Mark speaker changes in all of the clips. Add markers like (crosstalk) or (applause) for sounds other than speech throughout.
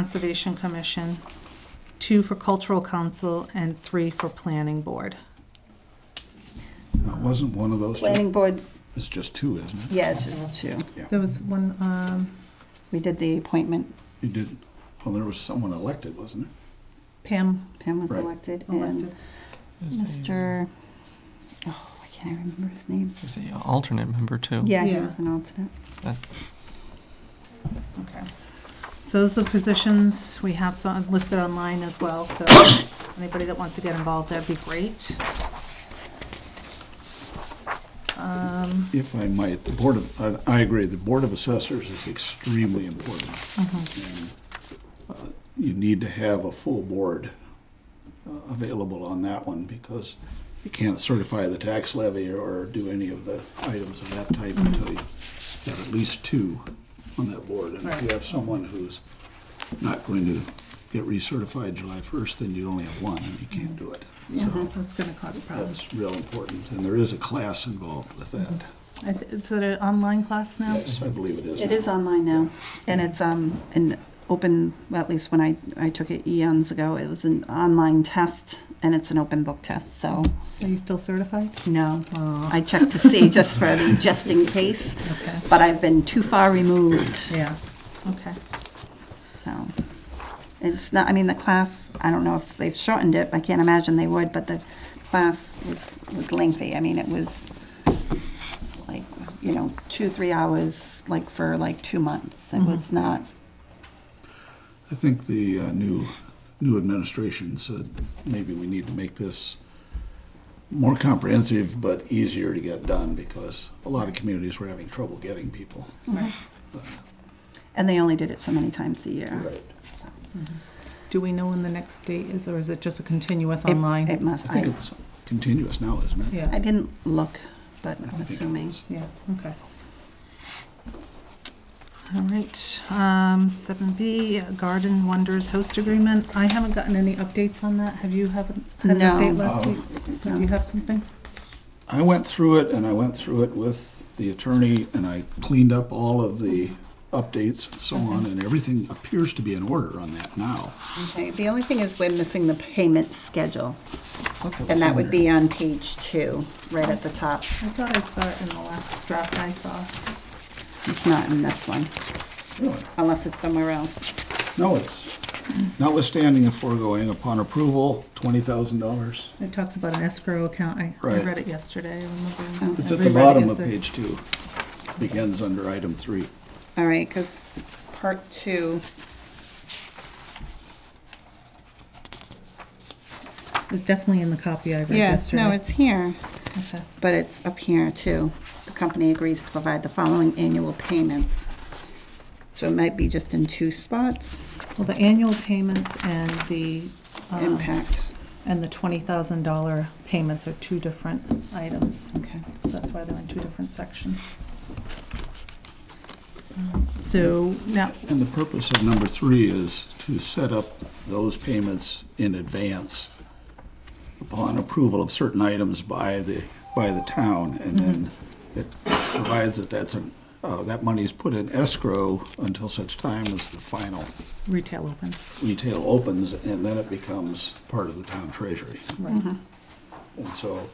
Speaker 1: Conservation Commission, two for Cultural Council, and three for Planning Board.
Speaker 2: Now, It wasn't one of those two.
Speaker 3: Planning board,
Speaker 2: It's just two, isn't it?
Speaker 3: yeah, it's just two.
Speaker 1: There was one, um,
Speaker 3: We did the appointment,
Speaker 2: You did, well, there was someone elected, wasn't there?
Speaker 1: Pam,
Speaker 3: Pam was
Speaker 2: Right.
Speaker 3: elected,
Speaker 1: Elected.
Speaker 3: and Mr., oh, why can't I remember his name?
Speaker 4: Is he an alternate member
Speaker 2: Oh.
Speaker 4: too?
Speaker 3: Yeah, he
Speaker 1: Yeah.
Speaker 3: was an alternate.
Speaker 1: okay. So those are the positions we have so- listed online as well, so (coughs) anybody that wants to get involved, that'd be great. Um,
Speaker 2: If I might, the Board of, I- I agree, the Board of Assessors is extremely important. And, uh, You need to have a full board uh, available on that one because you can't certify the tax levy or do any of the items of that type until you have at least two on that board. And if you
Speaker 1: Right.
Speaker 2: have someone who's not going to get recertified July 1st, then you only have one and you can't do it. So
Speaker 1: That's gonna cause problems.
Speaker 2: that's real important, and there is a class involved with that.
Speaker 1: I th- Is it an online class now?
Speaker 2: Yes, I believe it is.
Speaker 3: It
Speaker 2: now.
Speaker 3: is online now, and it's, um, an open, well, at least when I, I took it eons ago, it was an online test, and it's an open book test, so,
Speaker 1: Are you still certified?
Speaker 3: no. I checked to see just for the, just in case,
Speaker 1: Okay.
Speaker 3: but I've been too far removed,
Speaker 1: Yeah, okay.
Speaker 3: so. It's not, I mean, the class, I don't know if they've shortened it, I can't imagine they would, but the class was, was lengthy, I mean, it was like, you know, two, three hours, like, for like two months, it was not
Speaker 2: I think the uh, new, new administration said maybe we need to make this more comprehensive but easier to get done because a lot of communities were having trouble getting people.
Speaker 3: And they only did it so many times a year. So
Speaker 1: Do we know when the next date is, or is it just a continuous
Speaker 3: it-
Speaker 1: online?
Speaker 3: It
Speaker 2: I
Speaker 3: must,
Speaker 2: think
Speaker 3: I,
Speaker 2: it's continuous now, isn't it?
Speaker 3: I
Speaker 1: Yeah,
Speaker 3: didn't look, but
Speaker 2: I
Speaker 3: I'm
Speaker 2: think it
Speaker 3: assuming.
Speaker 2: is.
Speaker 1: yeah, okay. All right, um, seven B, Garden Wonders Host Agreement. I haven't gotten any updates on that. Have you haven't had an
Speaker 3: No.
Speaker 1: update last
Speaker 2: Oh.
Speaker 1: week? Do you have something?
Speaker 2: I went through it and I went through it with the attorney and I cleaned up all of the updates and so on and everything appears to be in order on that now.
Speaker 3: Okay, the only thing is we're missing the payment schedule,
Speaker 2: I thought was
Speaker 3: and that
Speaker 2: in
Speaker 3: would
Speaker 2: there.
Speaker 3: be on page two, right at the top.
Speaker 1: I thought I saw it in the last draft I saw.
Speaker 3: It's not in this one,
Speaker 2: Really?
Speaker 3: unless it's somewhere else.
Speaker 2: No, it's notwithstanding the foregoing upon approval, twenty thousand dollars.
Speaker 1: It talks about an escrow account. I, I
Speaker 2: Right.
Speaker 1: read it yesterday. I remember.
Speaker 2: It's
Speaker 1: I
Speaker 2: at
Speaker 1: reread
Speaker 2: the
Speaker 1: it
Speaker 2: bottom of
Speaker 1: yesterday.
Speaker 2: page two. Begins under item three.
Speaker 3: All right, because part two,
Speaker 1: It's definitely in the copy I read
Speaker 3: yes,
Speaker 1: yesterday.
Speaker 3: no, it's here.
Speaker 1: Okay.
Speaker 3: But it's up here too. The company agrees to provide the following annual payments. So it might be just in two spots,
Speaker 1: Well, the annual payments and the, um,
Speaker 3: impact.
Speaker 1: and the $20,000 payments are two different items.
Speaker 3: Okay.
Speaker 1: So that's why they're in two different sections. So now,
Speaker 2: And the purpose of number three is to set up those payments in advance upon approval of certain items by the, by the town. And then it provides that that's, an- uh, that money is put in escrow until such time as the final
Speaker 1: retail opens.
Speaker 2: retail opens, and then it becomes part of the town treasury.
Speaker 1: Right.
Speaker 2: And so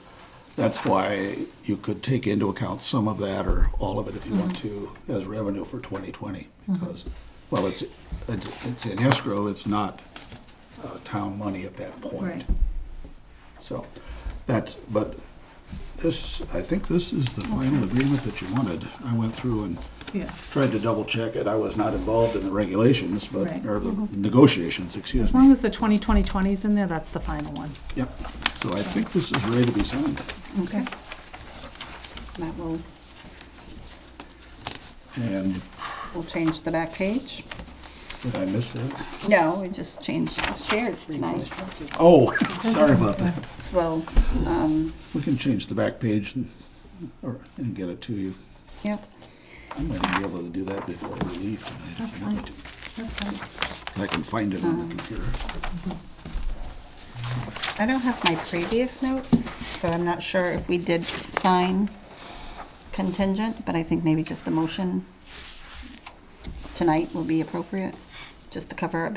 Speaker 2: that's why you could take into account some of that or all of it if you want to
Speaker 1: Mm-hmm.
Speaker 2: as revenue for 2020. Because, well, it's, it's it's in escrow, it's not uh, town money at that
Speaker 1: Right.
Speaker 2: point. So that's, but this, I think this is the final agreement that you wanted. I went through and
Speaker 1: Yeah.
Speaker 2: tried to double check it. I was not involved in the regulations, but,
Speaker 1: Right. Mm-hmm.
Speaker 2: or the negotiations, excuse
Speaker 1: As
Speaker 2: me.
Speaker 1: long as the 2020 is in there, that's the final one.
Speaker 2: Yep. So I think this is ready to be signed.
Speaker 1: Okay.
Speaker 3: That will,
Speaker 2: And
Speaker 3: will change the back page.
Speaker 2: did I miss that?
Speaker 3: No, we just changed chairs tonight.
Speaker 2: Oh, (laughs) sorry about that.
Speaker 3: Well, um,
Speaker 2: We can change the back page and, or, and get it to you.
Speaker 3: yep.
Speaker 2: I might be able to do that before we leave tonight. if
Speaker 1: That's Um,
Speaker 2: you want me
Speaker 1: fine.
Speaker 2: to. If I can find it on the computer.
Speaker 3: I don't have my previous notes, so I'm not sure if we did sign contingent, but I think maybe just a motion tonight will be appropriate just to cover it